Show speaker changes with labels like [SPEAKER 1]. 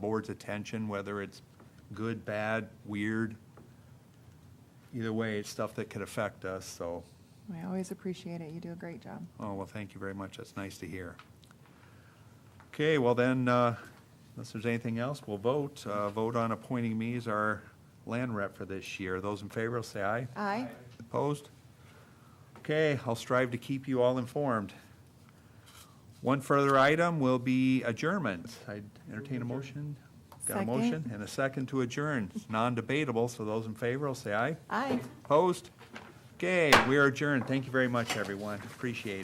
[SPEAKER 1] board's attention, whether it's good, bad, weird. Either way, it's stuff that could affect us, so,
[SPEAKER 2] I always appreciate it. You do a great job.
[SPEAKER 1] oh, well, thank you very much. That's nice to hear. Okay, well then, uh, unless there's anything else, we'll vote. Uh, Vote on appointing me as our land rep for this year. Those in favor, will say aye.
[SPEAKER 2] Aye.
[SPEAKER 1] Opposed? Okay, I'll strive to keep you all informed. One further item will be adjournment. I entertain a motion. Got a
[SPEAKER 2] Second.
[SPEAKER 1] motion and a second to adjourn. It's non-debatable, so those in favor will say aye.
[SPEAKER 2] Aye.
[SPEAKER 1] Opposed? Okay, we are adjourned. Thank you very much, everyone. Appreciate it.